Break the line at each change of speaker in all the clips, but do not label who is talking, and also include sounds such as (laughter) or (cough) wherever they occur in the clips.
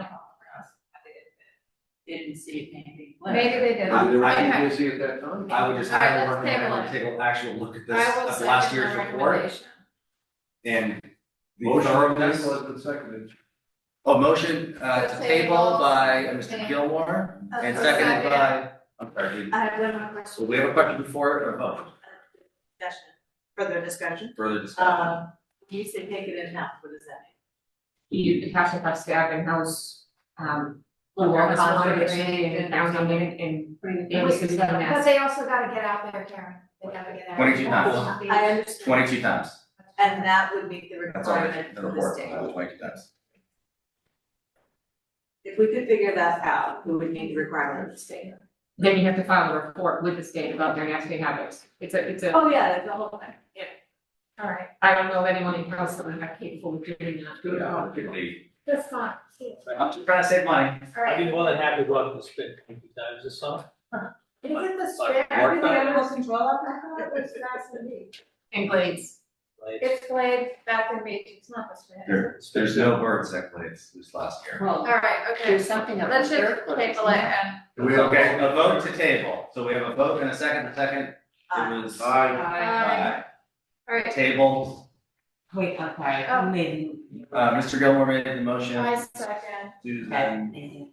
oh,
didn't see anything. like-
Maybe they did.
Either way,
Okay.
you busy at that time?
I would just,
All right,
I would
let's
recommend
table
everyone
it.
take an actual look at
I will
this, at
second
last
your
year's report
recommendation.
and. the
Motion on the
thoroughness-
table has been seconded.
A motion uh to
To
table
table.
by uh, Mr.
Okay.
Gilmore and
Okay.
seconded by, I'm sorry, do you-
I have one more
so
question.
we have a question before it or vote,
Discussion, further discussion.
further discussion?
Um, you said take it in half, what does that mean?
you have to have staff in-house, um,
Well,
work
that's
on
what
it
they're
and
saying.
accounting and, and
Bring
and
it-
system and
But they also gotta get out there, Karen, they gotta get out.
22
times. I understand.
Twenty-two times,
And that would meet the
that's all,
requirement
the
for this
report,
table.
that was twenty-two times.
If we could figure that out, we would meet the requirement of the state.
then you have to file a report with the state about their nasty habits. It's a, it's a,
Oh, yeah, that's the whole thing.
Alright,
I don't know of anyone in council that are capable of doing that.
Yeah, particularly-
that's not,
I'm just trying to save money.
alright.
I'd be more than happy to go up and spend twenty times this summer.
Is it the
Like,
spare,
work
everything
that-
animal control up, I thought it was grass and meat.
And Glades,
Like,
It's blade, back and meat, it's not the spare.
There, there's no birds that plays this last year.
Well,
Alright, okay,
there's something up
let's
there.
just table it and,
Do we have
Okay, a vote to table, so we have a vote and a second, a second,
Uh,
it was.
Aye.
I-
Aye. alright,
Table,
Wait, okay,
Oh.
maybe.
uh, Mr. Gilmore made the motion, um,
I second,
Susan.
and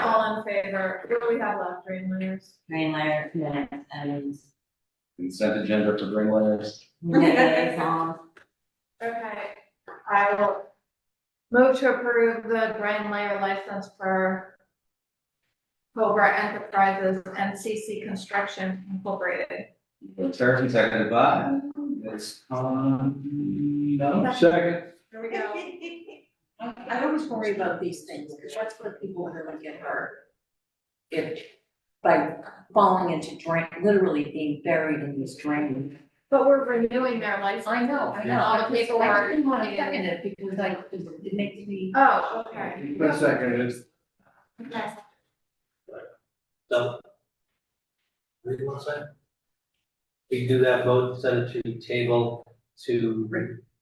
all in favor, what do we have left, green winners?
Green layer minutes
(laughs)
and
Consent agenda for bring letters.
liaison.
Okay, I will move to approve the brand layer license for Cobra Enterprises and CC Construction Incorporated.
Terry, and seconded by, it's, um, no.
Second.
Here we go.
I always worry about these things, because that's what people really get hurt. If, by falling into drain, literally being buried in this drain.
But we're renewing their license.
I know, I know.
All the
I
paperwork.
didn't want to get in it because I, it makes me.
Oh, okay.
Been seconded.
Okay.
so. What do you want to say? We can do that vote, send it to table to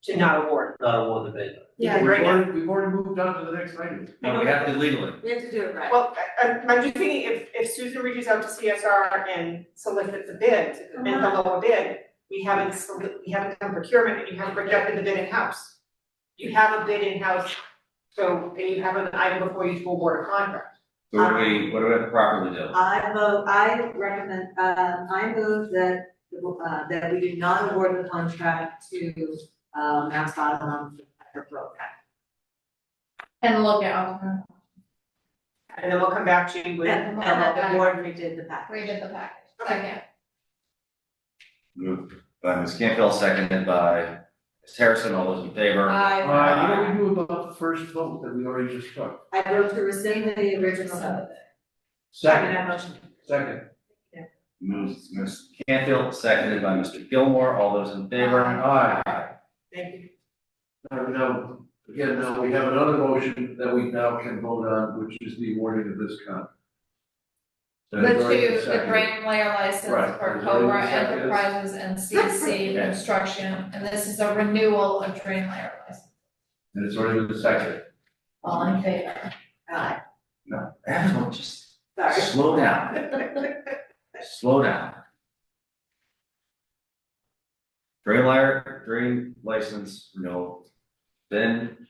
To not award.
not award the bid.
Yeah.
We've already, we've already moved on to the next item.
No, we have to legally.
We have to do it right.
Well, I, I'm, I'm just thinking, if, if Susan reaches out to CSR and solicits a bid, and the lower bid, we haven't, soli- we haven't done procurement, and you haven't rejected the bid in-house. You have a bid in-house, so, and you have an item before you to award a contract.
So what do we, what do we have to properly do?
I move, I recommend, uh, I move that, uh, that we do not award the contract to, uh, Mount Bottom for Broke.
And look at, oh,
And then we'll come back to you with.
And, and that the board redid the package.
we did the package. Second.
Moved by Ms. Campbell, seconded by Ms. Harrison, all those in favor?
Uh, you know, we knew about the first vote that we already just took.
I vote to rescind the original.
Second,
that motion.
second.
Moves Ms. Campbell, seconded by Mr. Gilmore, all those in favor?
Aye.
Thank you.
Now, now, again, now we have another motion that we now can vote on, which is the awarding of this contract. And it's
The
already
two, the
seconded.
brand layer license
Right.
for
There's already
Cobra
second.
Enterprises and
(laughs)
CC
Okay.
Construction, and this is a renewal of drain layer license.
And it's already been seconded.
All in favor?
Aye.
Everyone, just
sorry.
slow down, slow down. Drain liar, drain license, no. Then,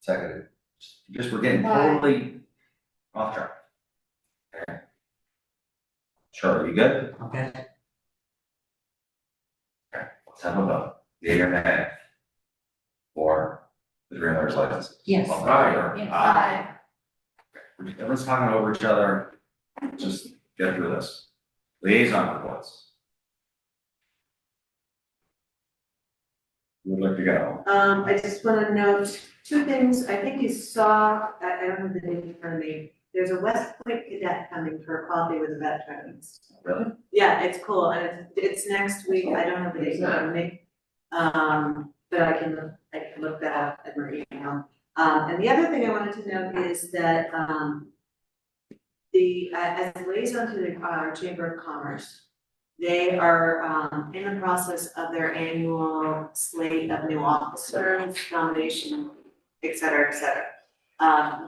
seconded. Just, we're getting
Why?
totally off track. Okay. Sure, you good?
Okay.
Let's have a vote. The internet. Or the drain layer's license.
Yes.
All right.
Yes.
Aye. Everyone's talking over each other, just get through this. Liaison reports. Who Would like to go.
Um, I just wanna note two things, I think you saw, I, I don't have the date in front of me, there's a West Point cadet coming for coffee with the veterans.
Really?
Yeah, it's cool, and it's, it's next week, I don't have the date in front of me. Um, but I can, I can look that up at my email. Um, and the other thing I wanted to note is that, um, the, uh, as a liaison to the, uh, Chamber of Commerce, they are um in the process of their annual slate of new officers, nomination, et cetera, et cetera. Um,